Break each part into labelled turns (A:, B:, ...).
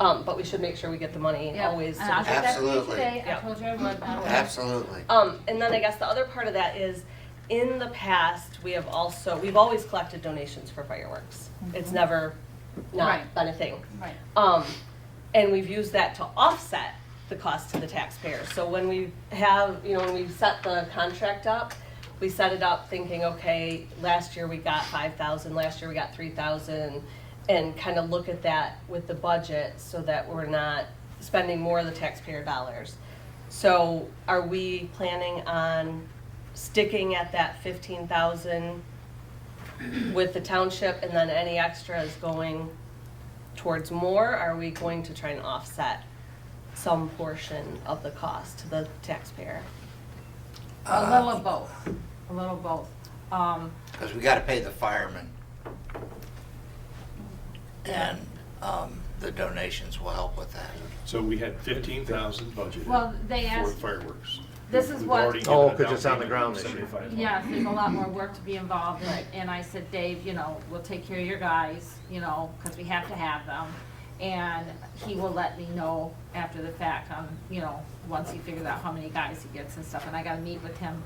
A: Um, but we should make sure we get the money
B: Yep.
A: always.
B: And I'll
A: sufficient.
B: get that for you
C: Absolutely.
B: today. I
A: Yep.
B: told you I would. I will.
C: Absolutely.
A: Um, and then I guess the other part of that is, in the past, we have also, we've always collected donations for fireworks. It's never not
B: Mm-hmm. Right.
A: been a thing.
B: Right.
A: Um, and we've used that to offset the cost to the taxpayer. So when we have, you know, when we set the contract up, we set it up thinking, okay, last year we got five thousand, last year we got three thousand, and kind of look at that with the budget so that we're not spending more of the taxpayer dollars. So are we planning on sticking at that fifteen thousand with the township and then any extra is going towards more? Are we going to try and offset some portion of the cost to the taxpayer?
B: A little of both, a little of both. Um,
C: Because we gotta pay the firemen. And, um, the donations will help with that.
D: So we had fifteen thousand budgeted.
B: Well, they asked-
D: For fireworks.
B: This is
D: We've
B: what-
D: already
E: Oh,
D: given a
E: 'cause it's
D: down
E: on
D: payment
E: the
D: of
E: ground this year.
D: 75,000.
B: yes, there's a lot more work to be involved in, and I said, Dave, you know, we'll take care of your guys, you know, because we have to have them. And he will let me know after the fact, um, you know, once he figures out how many guys he gets and stuff. And I gotta meet with him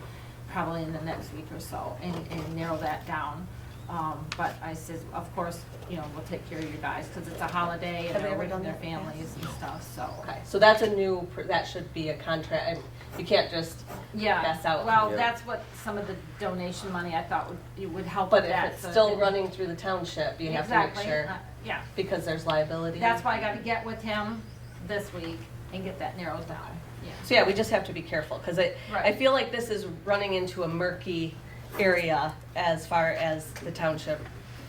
B: probably in the next week or so and, and narrow that down. Um, but I said, of course, you know, we'll take care of your guys, because it's a holiday
A: Have
B: and
A: we
B: they're
A: ever
B: with
A: done
B: their
A: that?
B: families and stuff, so.
A: Okay, so that's a new, pr- that should be a contract, and you can't just,
B: Yeah,
A: That's out.
B: well,
E: Yeah.
B: that's what some of the donation money I thought would, it would help with
A: but if
B: that.
A: it's
B: so it
A: still
B: didn't-
A: running through the township, you have to make
B: Exactly,
A: sure,
B: uh, Yeah,
A: because there's liability.
B: that's why I gotta get with him this week and get that narrowed down, yeah.
A: So yeah, we just have to be careful, because I, I
B: Right.
A: feel like this is running into a murky area as far as the township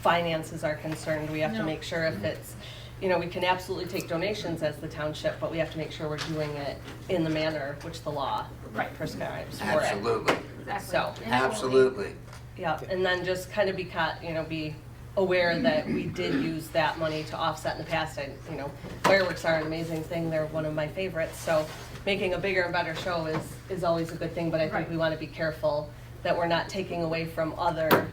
A: finances are concerned. We have to
B: No.
A: make sure if it's, you know, we can absolutely take donations as the township, but we have to make sure we're doing it in the manner which the law
B: Right.
A: prescribes for it.
C: Absolutely,
B: Exactly.
A: So,
B: And it won't be-
C: absolutely.
A: Yeah, and then just kind of be caught, you know, be aware that we did use that money to offset in the past. And, you know, fireworks are an amazing thing, they're one of my favorites, so making a bigger and better show is, is always a good thing, but I think
B: Right.
A: we want to be careful that we're not taking away from other,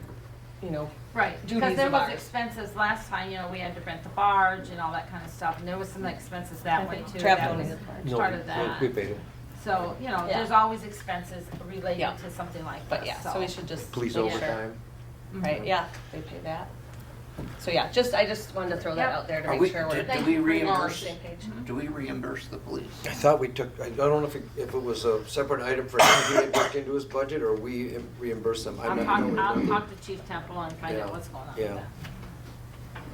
A: you know,
B: Right, because
A: duties
B: there
A: of
B: was
A: ours.
B: expenses last time, you know, we had to rent the barge and all that kind of stuff, and there was some expenses that way too. That
A: Traveling
B: was
A: is part.
E: No,
B: Part of that.
E: We paid it.
B: So, you know,
A: Yeah.
B: there's always expenses
A: Yeah.
B: related to something like
A: But
B: this,
A: yeah,
B: so. Mm-hmm.
A: so we should just.
E: Police
A: make sure.
E: overtime.
A: Right, yeah, they pay that. So yeah, just, I just wanted to throw that
B: Yep.
A: out there to
C: Are
A: make
C: we-
A: sure
C: do-
A: we're.
C: do we
A: we're all on the
C: reimburse?
A: same page.
C: Do we reimburse the police?
E: I thought we took, I don't know if it, if it was a separate item for him to get booked into his budget or we reimbursed them. I'm
B: I'll
E: not
B: talk,
E: knowing.
B: I'll talk to Chief Temple and find out
E: Yeah.
B: what's going on
E: Yeah.
B: with that.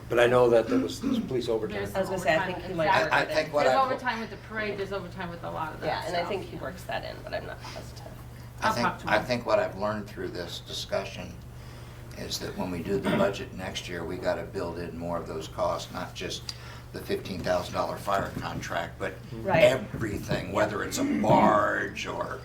E: But I know that there was, there was police overtime.
B: There's
A: I was gonna say, I
B: overtime,
A: think he might
B: exactly.
A: work
C: I- I
A: it in.
C: think what
B: There's
C: I-
B: overtime with the parade, there's overtime with a lot of that
A: Yeah, and I
B: stuff.
A: think he works that in, but I'm not positive.
C: I
B: I'll
C: think,
B: talk to
C: I
B: him.
C: think what I've learned through this discussion is that when we do the budget next year, we gotta build in more of those costs, not just the fifteen thousand dollar fire contract, but
A: Right.
C: everything, whether it's a barge or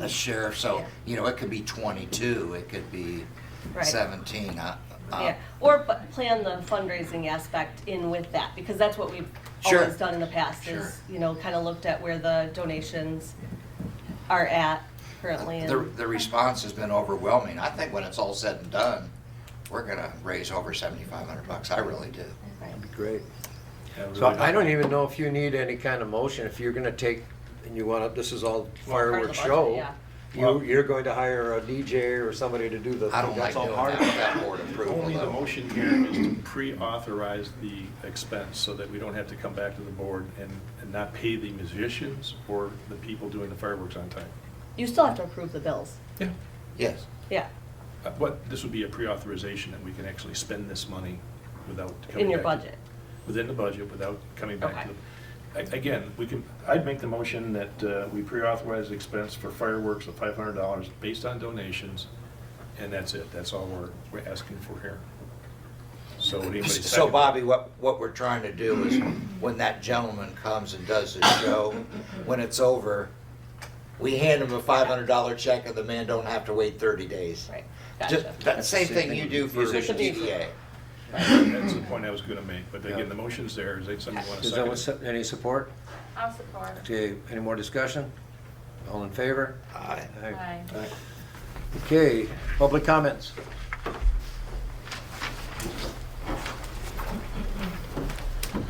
C: a sheriff, so,
A: Yeah.
C: you know, it could be twenty-two, it could be
A: Right.
C: seventeen, uh, uh,
A: Yeah, or bu- plan the fundraising aspect in with that, because that's what we've
C: Sure.
A: always done in the past,
C: Sure.
A: is, you know, kind of looked at where the donations are at currently,
C: The,
A: and,
C: the response has been overwhelming. I think when it's all said and done, we're gonna raise over seventy-five hundred bucks. I really do.
A: right.
E: Great.
D: Yeah,
E: So
D: really
E: I don't even know if you need any kind of motion. If you're gonna take, and you wanna, this is all
A: part of the
E: fireworks
A: budget,
E: show.
A: yeah.
E: You, you're going to hire a DJ or somebody to do the.
C: I don't like
D: That's all
C: doing
D: part
C: that
D: of it.
C: without board approval.
D: Only the
C: though.
D: motion here is to pre-authorize the expense so that we don't have to come back to the board and, and not pay the musicians or the people doing the fireworks on time.
A: You still have to approve the bills,
D: Yeah.
C: Yes.
A: yeah,
D: Uh, But this would be a pre-authorization and we can actually spend this money without coming back.
A: in your
D: to-
A: budget.
D: Within the budget without coming back
A: Okay.
D: to the, a- again, we can, I'd make the motion that uh, we pre-authorize the expense for fireworks of five hundred dollars based on donations. And that's it. That's all we're, we're asking for here. So would anybody second?
C: So Bobby, what, what we're trying to do is when that gentleman comes and does his show, when it's over, we hand him a five hundred dollar check and the man don't have to wait thirty days.
A: Right,
C: Just,
A: gotcha.
C: that same thing you do for
A: Musicians.
C: DDA.
D: That's the point I was gonna make, but again, the motion's there, is that something you wanna
E: Does anyone,
D: second?
E: se- any support?
B: I'll support.
E: Okay, any more discussion? All in favor?
C: Aye.
E: Aye.
B: Aye.
E: Okay, public comments.